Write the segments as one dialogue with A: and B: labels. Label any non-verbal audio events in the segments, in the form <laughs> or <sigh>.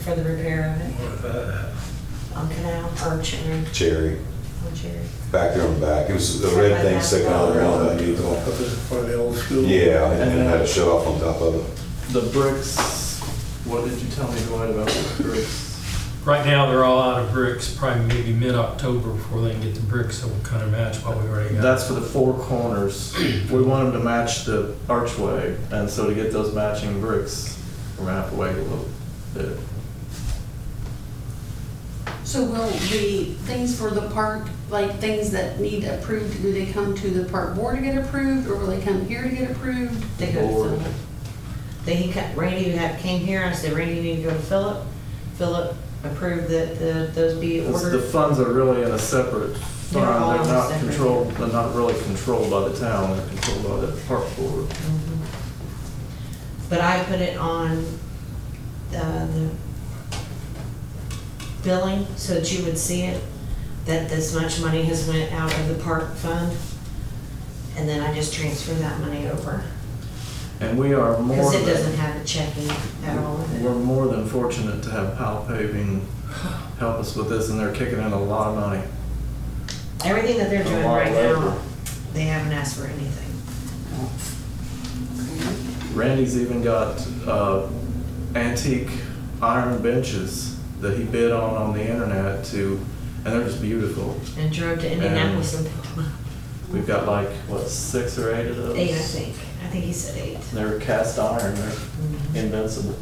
A: for the repair of it
B: What about,
A: on Canal, or Cherry,
C: Cherry,
A: on Cherry.
C: back there on the back. It was a red thing sticking out of the ground that needle.
B: up as part of the old school?
C: Yeah, and and it had a shut off on top of it.
D: The bricks, what did you tell me, Dwight, about the bricks?
E: Right now, they're all out of bricks, probably maybe mid-October before they can get the bricks, so we'll kind of match what we already got.
D: That's for the four <clears throat> corners. We want them to match the archway, and so to get those matching bricks, we're gonna have to wait a little bit.
F: So will the things for the park, like things that need approved, do they come to the park board to get approved, or will they come here to get approved?
A: They go to
D: Or-
A: Philip. Then he, ca- Randy had, came here, I said, Randy, you need to go to Philip. Philip approved that the, those be
D: Because The
A: ordered.
D: funds are really in a separate fund,
A: They're all
D: they're
A: in a
D: not
A: separate-
D: controlled, they're not really controlled by the town, they're controlled by the park board.
A: Mhm. But I put it on uh, the billing so that you would see it, that this much money has went out of the park fund. And then I just transfer that money over.
D: And we are more
A: Because it
D: than-
A: doesn't have a checking at all. in it.
D: We're more than fortunate to have Powell Paving help us with this, and they're kicking in a lot of money.
A: Everything that they're
D: A
A: doing
D: lot
A: right
D: labor.
A: now, they haven't asked for anything.
D: Randy's even got uh, antique iron benches that he bid on on the internet to, and they're just beautiful.
A: And drove to Indianapolis and picked them
D: We've got like, what, six or eight of
A: up.
D: those?
A: Eight, I think. I think he said eight. <laughs>
D: And They're cast iron, they're
A: Mhm.
D: invincible.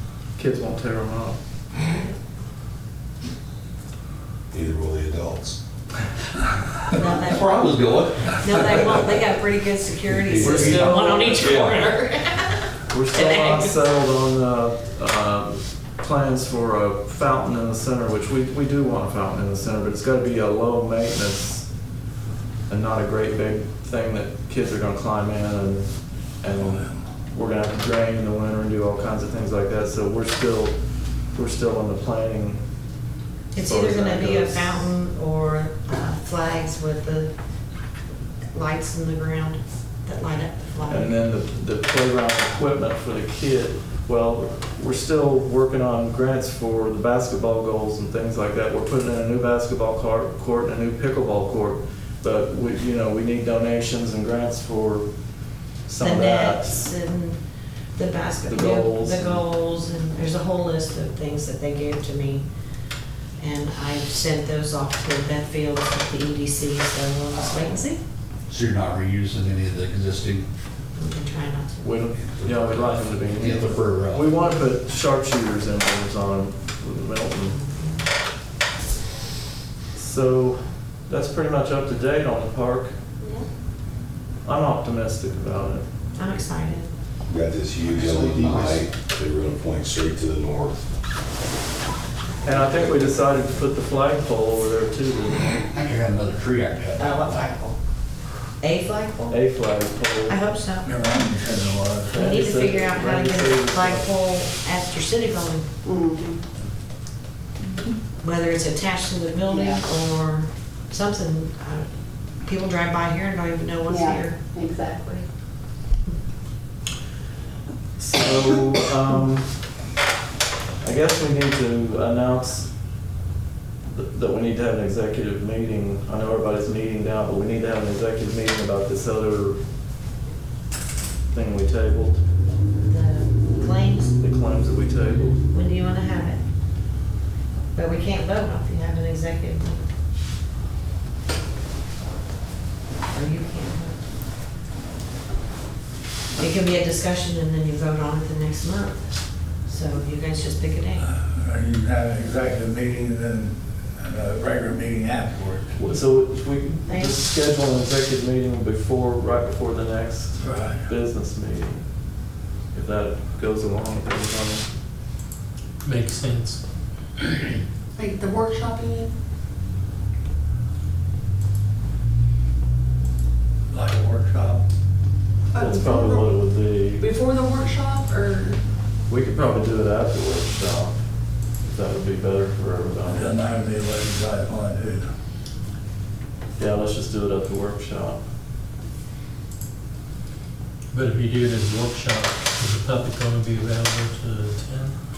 A: <laughs>
D: Kids won't tear them up.
C: Neither will the adults.
A: No, they-
G: I was going.
A: No, they won't. They got pretty good security
C: We're
A: system,
D: still-
A: one on each
G: yeah.
D: <laughs>
A: corner.
D: We're still not settled on the uh, plans for a fountain in the center, which we, we do want a fountain in the center, but it's gotta be a low maintenance and not a great big thing that kids are gonna climb in and, and we're gonna have to drain in the winter and do all kinds of things like that, so we're still, we're still in the planning.
A: It's
D: Or
A: either
D: is
A: gonna
D: that
A: be a
D: goes-
A: fountain or uh, flags with the lights in the ground that light up the flag.
D: And then the, the playground equipment for the kid, well, we're still working on grants for the basketball goals and things like that. We're putting in a new basketball car- court and a new pickleball court, but we, you know, we need donations and grants for some
A: The
D: of that.
A: nets and the basket,
D: The
A: yeah,
D: goals
A: the
D: and-
A: goals, and there's a whole list of things that they gave to me. And I sent those off to Beth Fields at the EDC, so we'll just wait and see.
G: So you're not reusing any of the existing,
A: We can try not to.
D: We don't, you know, we'd like them to be.
G: Yeah, the fur, uh,
D: We want to put sharpshooters in those on Milton. So that's pretty much up to date on the park. I'm optimistic about it.
A: I'm excited.
C: We Got this huge LED light. They were gonna point straight to the north.
D: And I think we decided to put the flagpole over there too,
G: I
D: the
G: think I got another tree I cut.
A: Uh, what flagpole? A flagpole?
D: A
A: I
D: flagpole.
A: hope so.
B: Around the lot.
A: We need to
D: Randy
A: figure
D: said-
A: out how to
D: Randy
A: get
D: said
A: a
D: it's-
A: flagpole at your city building,
H: Mm-hmm.
A: whether it's attached to the building
H: Yeah.
A: or something. Uh, People drive by here and don't even know what's
H: Yeah,
A: here.
H: exactly.
D: So, um, I guess we need to announce th- that we need to have an executive meeting. I know everybody's meeting now, but we need to have an executive meeting about this other thing we tabled,
A: The claims,
D: the claims that we tabled.
A: when do you want to have it? But we can't vote if you have an executive meeting. Or you can't vote. It can be a discussion and then you vote on it the next month. So you guys just pick a date.
B: Or you have an executive meeting and then a regular meeting afterward.
D: So we
A: Thanks.
D: just schedule an executive meeting before, right before the next
B: Right.
D: business meeting, if that goes along with everything.
E: Makes sense.
F: Like the workshop, you mean?
B: Like a workshop.
D: That's probably what it would be.
F: Before the workshop, or?
D: We could probably do it after workshop. That would be better for
B: Doesn't
D: everybody.
B: have to be late, I want to.
D: Yeah, let's just do it at the workshop.
E: But if you do it as a workshop, is the public going to be available to attend?